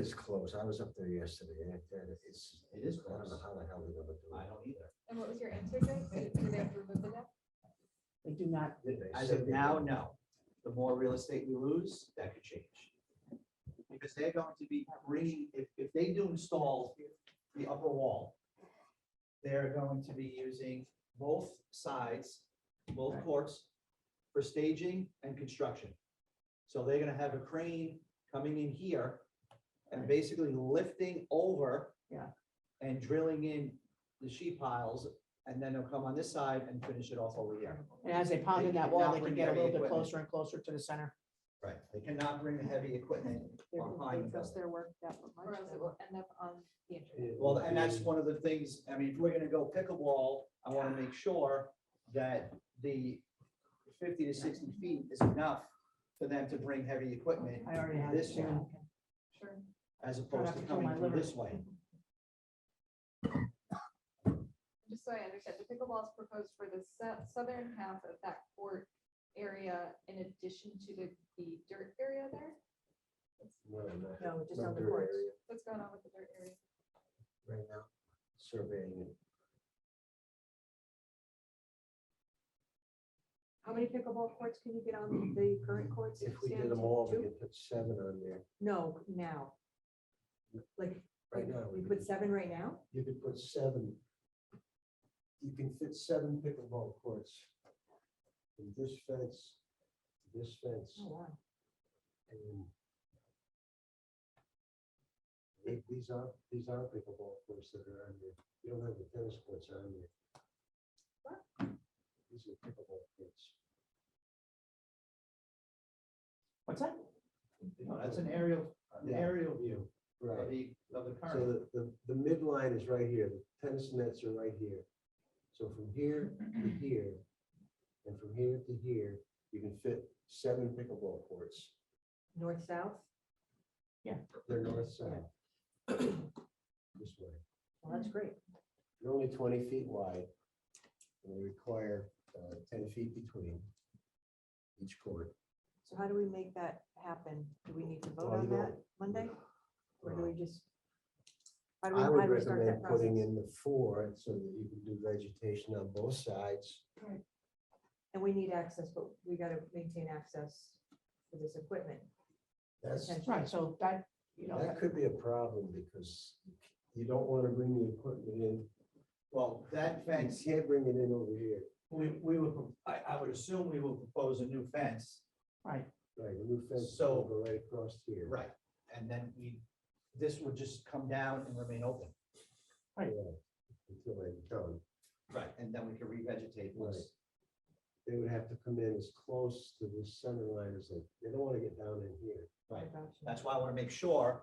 It's close. I was up there yesterday and it- and it's, It is I don't know close. how the hell they're gonna do I it. don't either. And what was your answer, Jake? Did did they remove the deck? They do not, They As said of they now, didn't. no. The more real estate we lose, that could change. Because they're going to be bringing, if, if they do install the upper wall, they're going to be using both sides, both courts for staging and construction. So they're gonna have a crane coming in here and basically lifting over. Yeah. And drilling in the sheet piles, and then they'll come on this side and finish it off over here. and as they pound in They that cannot wall, they bring can get a heavy little bit equipment. closer and closer to the center. Right, they cannot bring the heavy equipment They're- behind They the trust building. their work that much. Or else it will end up on the internet. It Well, would and that's be- one of the things, I mean, if we're gonna go pick a wall, I wanna make sure that the fifty to sixty feet is enough for them to bring heavy equipment I already have. this it, way, yeah. Sure. as opposed to Product for coming my through liver. this way. Just so I understand, the pickleball is proposed for the sou- southern half of that court area in addition to the, the dirt area there? No, no. No, just No on the dirt courts. area What's going on with the dirt area? Right now, surveying it. How many pickleball courts can you get on the current courts? If we Stan? did them all, we Two? could put seven on there. No, now. Like, Right now, we we put could- seven right now? you could put seven. You can fit seven pickleball courts. And this fence, this fence. Oh, wow. And the- These are, these are pickleball courts that are on there. You don't have the tennis courts on there. What? These are pickleball courts. What's that? No, that's an aerial, an Yeah. aerial view of Right. the, of the So current. the, the, the midline is right here. The tennis nets are right here. So from here to here, and from here to here, you can fit seven pickleball courts. North, south? They're north side. This way. Well, that's great. They're only twenty feet wide. And they require uh, ten feet between each court. So how do we make that happen? Do we need to vote Well, on you that don't- Monday? Or do we just? How do we, I how would do we start recommend that putting process? in the four so that you can do vegetation on both sides. And we need access, but we gotta maintain access for this equipment. That's, potentially. Right, so that, you know, that could be a problem because you don't want to bring the equipment in. Well, that You fence, can't bring it in over here. we, we would, pro- I, I would assume we will propose a new fence right, Right, the new fence is So- over right across here. Right, and then we, this would just come down and remain open. Yeah, Until they're done. Right. And then we can revegetate Right. once. They would have to come in as close to the center line as they, they don't want to get down in here. Right, gotcha. that's why I want to make sure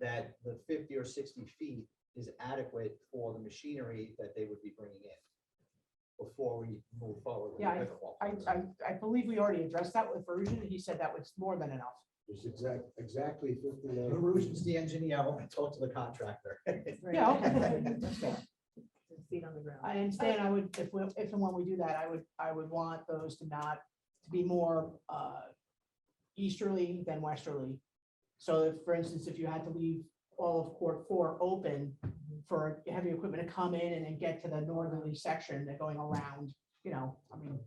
that the fifty or sixty feet is adequate for the machinery that they would be bringing in before we move forward. with the Yeah, I- pickleball I, courts. I, I believe we already addressed that with Verusian, and he said that was more than enough. There's exact, exactly fifty-nine. Verusian's the engineer, I want to talk to the contractor. Right. Yeah, okay, that's fair. Feet on the ground. I understand, I would, if, we if and when we do that, I would, I would want those to not, to be more uh, easterly than westerly. So if, for instance, if you had to leave all of court four open for heavy equipment to come in and then get to the northerly section, they're going around, you know, I mean,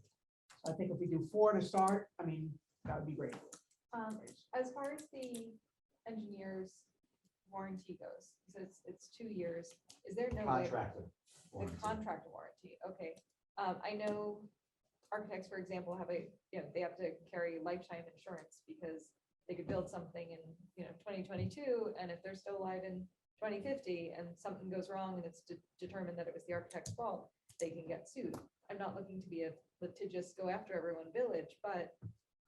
I think if we do four to start, I mean, that would be great. Um, as far as the engineer's warranty goes, so it's, it's two years, is there no way? Contractor. The contract warranty, okay. Um, I know architects, for example, have a, you know, they have to carry lifetime insurance because they could build something in, you know, twenty twenty-two, and if they're still alive in twenty fifty and something goes wrong and it's de- determined that it was the architect's fault, they can get sued. I'm not looking to be a litigious go after everyone village, but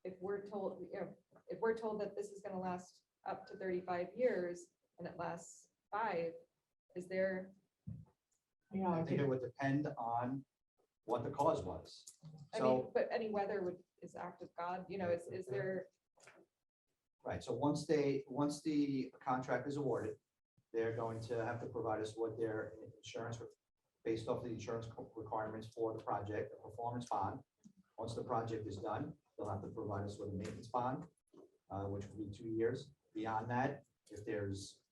if we're told, you know, if we're told that this is gonna last up to thirty-five years and it lasts five, is there You know, I I think think, it would depend on what the cause was. I mean, So, but any weather would, is act of God, you know, is, is there, right, so once they, once the contract is awarded, they're going to have to provide us what their insurance, based off the insurance requirements for the project, the performance bond. Once the project is done, they'll have to provide us with a maintenance bond, uh, which will be two years. Beyond that, if there's